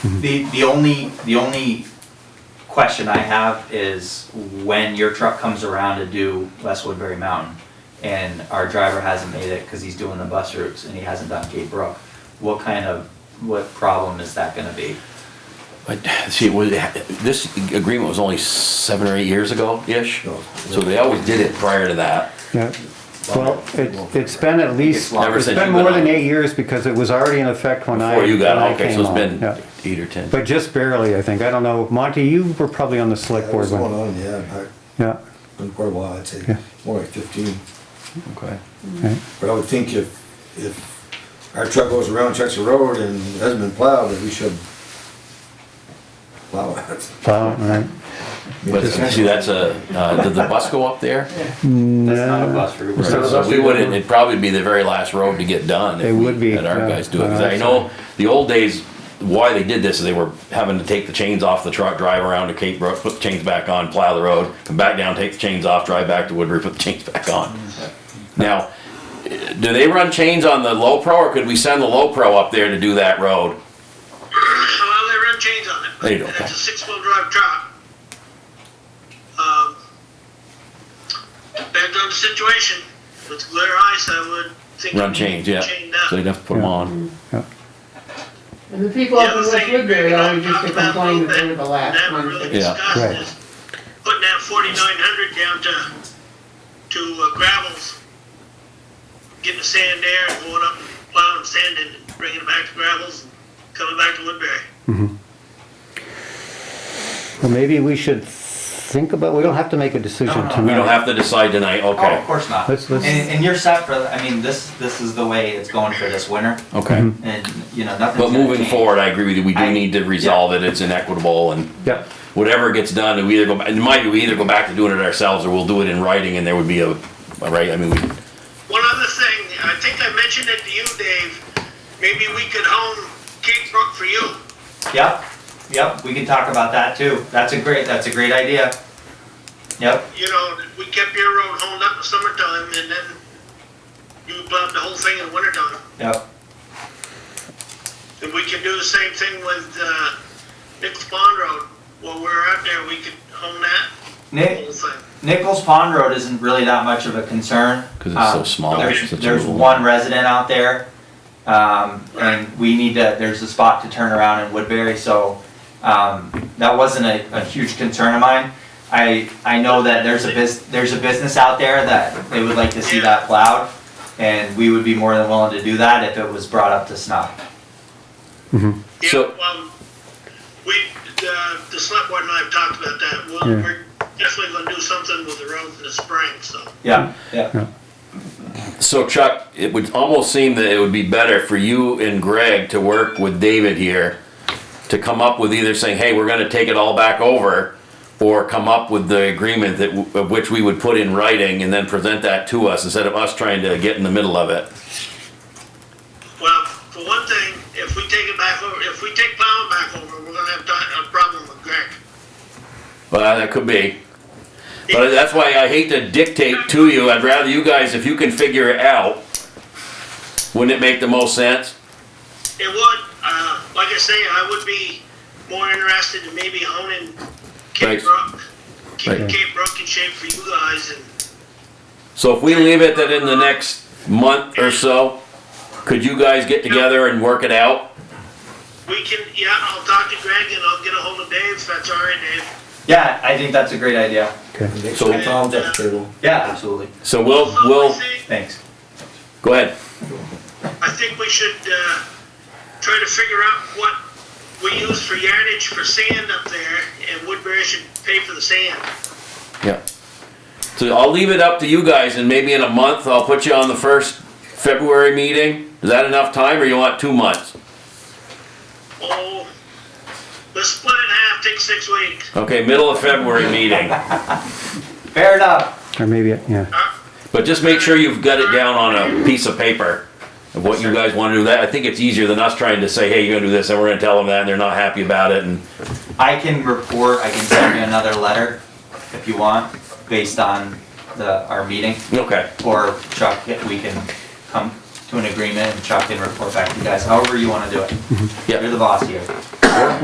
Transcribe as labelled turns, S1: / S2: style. S1: The, the only, the only question I have is when your truck comes around to do West Woodbury Mountain and our driver hasn't made it because he's doing the bus routes and he hasn't done Cape Brook, what kind of, what problem is that gonna be?
S2: But see, it was, this agreement was only seven or eight years ago-ish,
S3: Oh,
S2: so they always did it prior to that.
S3: Yeah, well, it, it's been at least,
S1: Never
S3: it's
S2: since
S3: been
S2: you've been
S3: more than
S2: on.
S3: eight years because it was already in effect when I,
S2: Before you
S3: when
S2: got,
S3: I
S2: okay,
S3: came
S2: so it's
S3: on.
S2: been
S3: Yeah.
S2: eight or 10.
S3: But just barely, I think. I don't know. Monty, you were probably on the select
S4: That
S3: board
S4: was going
S3: when.
S4: on, yeah, in fact,
S3: Yeah,
S4: been quite a while, I'd say,
S3: Yeah.
S4: more like fifteen.
S2: Okay.
S3: right.
S4: But I would think if, if our truck goes around, checks the road and it hasn't been plowed, that we should plow it.
S3: Plow, right.
S2: But see, that's a, uh, did the bus go up there?
S1: That's not a bus route.
S3: It's not a
S1: right?
S2: So we wouldn't, it'd probably be the very last road to get done. if
S3: It would
S2: we
S3: be,
S2: Had our
S3: yeah.
S2: guys do it, 'Cause I know, the old days, why they did this is they were having to take the chains off the truck, drive around to Cape Brook, put the chains back on, plow the road, come back down, take the chains off, drive back to Woodbury, put the chains back on. Now, do they run chains on the low pro, or could we send the low pro up there to do that road?
S5: Well, they run chains on it.
S2: There you go.
S5: And It's a six-wheel drive truck. Um, Depends on the situation. With glare ice, I would think.
S2: Run
S5: it'd be
S2: chains, yeah.
S5: chained
S2: So
S5: up.
S2: they'd have to put them on.
S6: And the people
S5: The
S6: up in
S5: other
S6: West
S5: thing
S6: Woodbury
S5: we
S6: always used
S5: talked
S6: to
S5: about a
S6: complain that
S5: little
S6: they were
S5: bit,
S6: the last
S5: that we
S6: ones.
S5: really
S6: to-
S2: Yeah,
S5: discussed
S3: right.
S5: is Putting that forty-nine hundred down to, to uh, gravels. Getting the sand there and going up and plowing and sanding, and bringing it back to gravels and coming back to Woodbury.
S3: Well, maybe we should think about, we don't have to make a decision
S1: No, no,
S3: tonight.
S2: We don't have to decide tonight,
S1: Oh, of
S2: okay.
S1: course not.
S3: Let's- let's-
S1: And, and you're set for, I mean, this, this is the way it's going for this winter
S3: Mm-hmm.
S2: Okay.
S1: and, you know, nothing's
S2: But
S1: gonna
S2: moving
S1: change.
S2: forward, I agree with you, we
S1: I-
S2: do need to resolve it, it's inequitable and
S3: Yeah,
S2: whatever gets done, we either go, back- in my view, we either go back to doing it ourselves or we'll do it in writing and there would be a, a right, I mean, we,
S5: One other thing, I think I mentioned it to you, Dave. Maybe we could hone Cape Brook for you.
S1: Yep, yep, we can talk about that too. That's a great, that's a great idea. Yep,
S5: You know, we kept your road honed up in summertime and then you plowed the whole thing in wintertime.
S1: yep,
S5: And we could do the same thing with, uh, Nichols Pond Road. While we were out there, we could hone that
S1: Nick,
S5: whole thing.
S1: Nichols Pond Road isn't really that much of a concern.
S2: 'Cause it's so
S1: Um,
S2: small,
S1: There's,
S2: such a
S1: there's
S2: little-
S1: one resident out there, um, and we need to, there's a spot to turn around in Woodbury, so, um, that wasn't a, a huge concern of mine. I, I know that there's a bus, there's a business out there that they would like to see that plowed, and we would be more than willing to do that if it was brought up to snuff.
S5: Yeah,
S2: So-
S5: well, we, uh, the select board and I have talked about that. We'll,
S3: Yeah.
S5: we're definitely gonna do something with the road in the spring, so.
S1: Yeah, yeah.
S2: so Chuck, it would almost seem that it would be better for you and Greg to work with David here to come up with either saying, hey, we're gonna take it all back over or come up with the agreement that, w- of which we would put in writing and then present that to us instead of us trying to get in the middle of it.
S5: Well, for one thing, if we take it back over, if we take plowing back over, we're gonna have di- a problem with Greg.
S2: Well, that could be. But that's why I hate to dictate to you. I'd rather you guys, if you can figure it out, wouldn't it make the most sense?
S5: It would, uh, like I say, I would be more interested in maybe honing Cape
S2: Right.
S5: Brook, keeping
S2: Right.
S5: Cape Brook in shape for you guys and
S2: So if we leave it that in the next month or so, could you guys get together and work it out?
S5: we can, yeah, I'll talk to Greg and I'll get a hold of Dave, if that's all right, Dave.
S1: Yeah, I think that's a great idea.
S4: And they
S2: So-
S4: put Tom's at the table.
S1: Yeah, absolutely.
S2: So we'll,
S5: Also, I
S2: Oh, we'll,
S5: think-
S1: Thanks.
S2: go ahead.
S5: I think we should, uh, try to figure out what we use for yardage for sand up there and Woodbury should pay for the sand.
S2: Yeah. So I'll leave it up to you guys and maybe in a month, I'll put you on the first February meeting. Is that enough time or you want two months?
S5: Oh, let's split it in half, take six weeks.
S2: Okay, middle of February meeting.
S1: Fair enough.
S3: or maybe, yeah.
S2: But just make sure you've got it down on a piece of paper of what you guys wanna do that. I think it's easier than us trying to say, hey, you're gonna do this, and we're gonna tell them that, and they're not happy about it, and,
S1: I can report, I can send you another letter if you want, based on the, our meeting.
S2: okay.
S1: Or Chuck, if we can come to an agreement and Chuck can report back to you guys, however you wanna do it.
S2: Yeah.
S1: You're the boss here.